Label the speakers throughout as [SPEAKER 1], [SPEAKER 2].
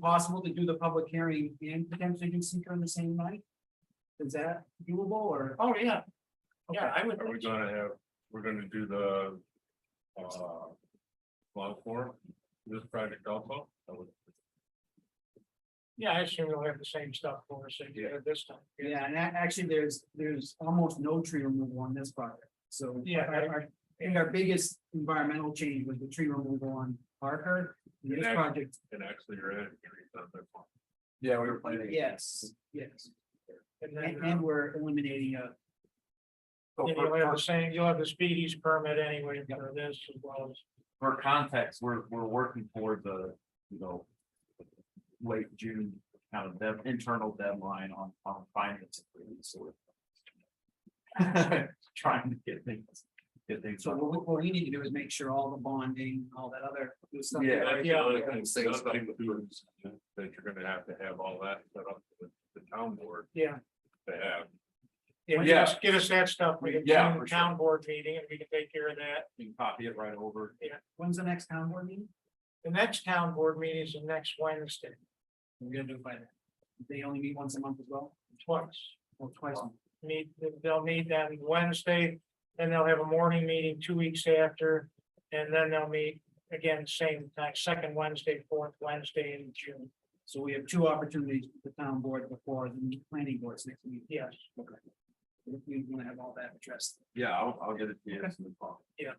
[SPEAKER 1] possible to do the public hearing and potentially do seeker on the same night? Is that doable or?
[SPEAKER 2] Oh, yeah. Yeah, I would.
[SPEAKER 3] Are we gonna have, we're gonna do the. uh Law for this project also? I would-
[SPEAKER 2] Yeah, I assume we'll have the same stuff for us that you had this time.
[SPEAKER 1] Yeah, and a- actually, there's, there's almost no tree removal on this project, so.
[SPEAKER 2] Yeah.
[SPEAKER 1] Our, our, I think our biggest environmental change was the tree removal on Parker, and this
[SPEAKER 3] Yeah.
[SPEAKER 1] project,
[SPEAKER 3] And actually, you're adding trees on that farm.
[SPEAKER 4] Yeah, we were planning.
[SPEAKER 1] yes, yes,
[SPEAKER 2] And
[SPEAKER 1] and,
[SPEAKER 2] then,
[SPEAKER 1] and
[SPEAKER 2] uh,
[SPEAKER 1] we're eliminating a.
[SPEAKER 4] So
[SPEAKER 2] then you'll
[SPEAKER 4] for-
[SPEAKER 2] have the same, you'll have the speedies permit anyway for this as well as.
[SPEAKER 4] For context, we're, we're working toward the, you know. Late June, kind of dev- internal deadline on, on finance. agreement, so we're Trying to get things, get things.
[SPEAKER 1] So what, we- what we need to do is make sure all the bonding, all that other good stuff.
[SPEAKER 4] Yeah,
[SPEAKER 3] That's the
[SPEAKER 2] yeah,
[SPEAKER 3] other
[SPEAKER 2] yeah.
[SPEAKER 3] thing, the other thing to do is That you're gonna have to have all that set up with the town board
[SPEAKER 2] Yeah.
[SPEAKER 3] to have.
[SPEAKER 2] Yeah,
[SPEAKER 4] Yeah.
[SPEAKER 2] just get us that stuff. We can
[SPEAKER 4] Yeah,
[SPEAKER 2] do
[SPEAKER 4] for
[SPEAKER 2] the town board meeting and we can take care of that.
[SPEAKER 4] You can copy it right over.
[SPEAKER 1] When's the next town board meeting?
[SPEAKER 2] The next town board meeting is the next Wednesday,
[SPEAKER 1] We're gonna do it by then. They only meet once a month as well,
[SPEAKER 2] twice.
[SPEAKER 1] or twice. a month.
[SPEAKER 2] Meet, they'll meet that Wednesday, then they'll have a morning meeting two weeks after. And then they'll meet again, same time, second Wednesday, fourth Wednesday in June.
[SPEAKER 1] So we have two opportunities with the town board before the planning board's next meeting.
[SPEAKER 2] Yes.
[SPEAKER 1] We wanna have all that addressed.
[SPEAKER 4] Yeah, I'll, I'll get it to you. as soon as possible.
[SPEAKER 2] Yeah.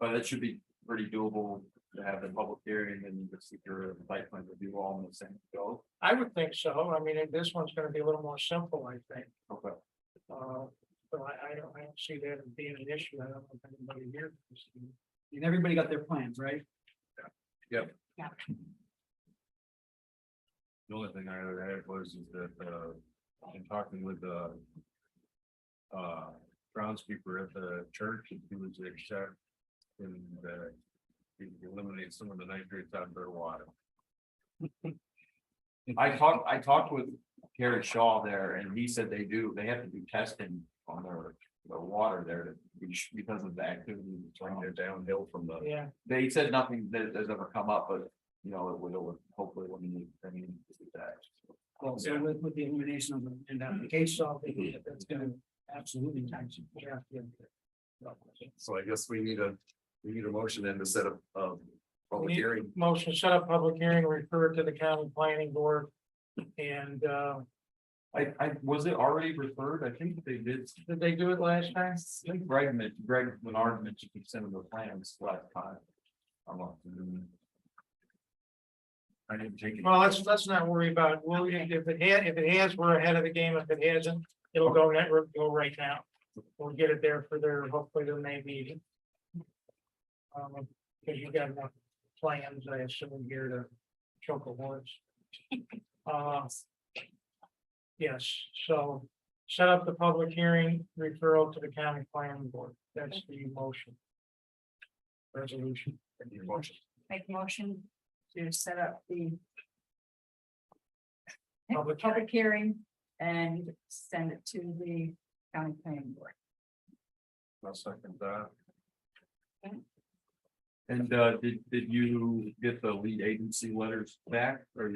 [SPEAKER 4] But it should be pretty doable to have the public hearing and the secure site plan review all in the same go.
[SPEAKER 2] I would think so. I mean, and this one's gonna be a little more simple, I think.
[SPEAKER 4] Okay.
[SPEAKER 2] Uh, so I, I don't, I don't see that as being an issue. I don't know if anybody here. can see.
[SPEAKER 1] And everybody got their plans, right?
[SPEAKER 3] The only thing I had was is that, uh, in talking with the. Uh, groundskeeper at the church, he was accept. And, uh, he eliminated some of the nitrates out of their water.
[SPEAKER 4] I talked, I talked with Gary Shaw there and he said they do, they have to do testing on their, their water there to be sh- because of the activity. that's
[SPEAKER 3] Right
[SPEAKER 4] around
[SPEAKER 3] there
[SPEAKER 4] it.
[SPEAKER 3] downhill from the,
[SPEAKER 2] Yeah,
[SPEAKER 4] They said nothing that has ever come up, but you know, it would, it would hopefully when you, I mean, that.
[SPEAKER 1] Well, so with, with the elimination of the- and application, I think
[SPEAKER 2] Mm-hmm.
[SPEAKER 1] that that's gonna absolutely time some. yeah, yeah.
[SPEAKER 3] so I guess we need a, we need a motion then to set up, um,
[SPEAKER 2] We
[SPEAKER 3] public
[SPEAKER 2] need-
[SPEAKER 3] hearing.
[SPEAKER 2] motion set up public hearing, refer it to the county planning board. And, uh,
[SPEAKER 4] I, I, was it already referred? I think they did,
[SPEAKER 2] did they do it last time?
[SPEAKER 4] I think Greg, men- Greg Menard mentioned he sent him the plans last time. I'm not.
[SPEAKER 3] I didn't take it.
[SPEAKER 2] Well, let's, let's not worry about, it. we'll, if it had, if it has, we're ahead of the game. If it hasn't, it'll go, net- go right now. We'll get it there for their, hopefully their May meeting. Um, cause you got enough plans, I assume, here to choke awards. Uh. Yes, so set up the public hearing referral to the county planning board. That's the motion. Resolution.
[SPEAKER 5] Make a motion to set up the
[SPEAKER 2] Public hearing.
[SPEAKER 5] public hearing and send it to the county planning board.
[SPEAKER 3] I'll second that.
[SPEAKER 4] And, uh, did, did you get the lead agency letters back or?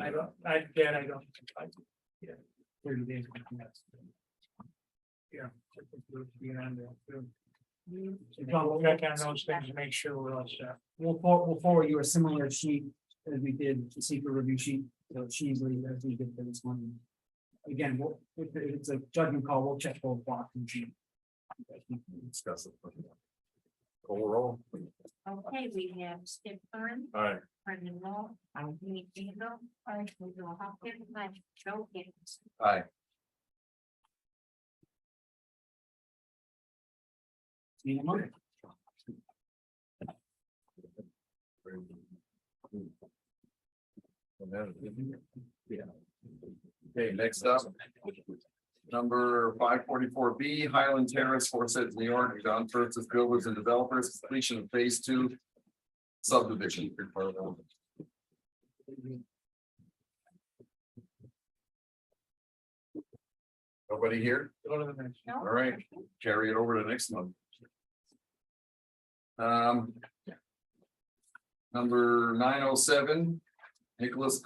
[SPEAKER 2] I don't, I, Dan, I don't. I- Yeah.
[SPEAKER 1] Thirty days. we can have-
[SPEAKER 2] Yeah.
[SPEAKER 1] uh,
[SPEAKER 2] John, we'll check on those things to make sure we're all set.
[SPEAKER 1] We'll for, we'll forward you a similar sheet as we did the secret review sheet, so she's leading as we did for this one. Again, we'll, if it's a judgment call, we'll check both boxes. and sheet.
[SPEAKER 3] Discuss it. Overall.
[SPEAKER 6] Okay, we have Skip Thorne,
[SPEAKER 3] All right,
[SPEAKER 6] Brendan Law, I'm Nate Eagle, I'm Joe Hopkins, i Joe Gibbs.
[SPEAKER 1] Need a motion?
[SPEAKER 4] Okay, next up. Number five forty-four B Highland Terrace, Forsyth, New York, John Francis Builders and Developers, completion of phase two. Subdivision.
[SPEAKER 3] nobody here?
[SPEAKER 2] Go to the next.
[SPEAKER 3] All right, carry it over to next month. Um. Number nine oh seven.
[SPEAKER 4] Nicholas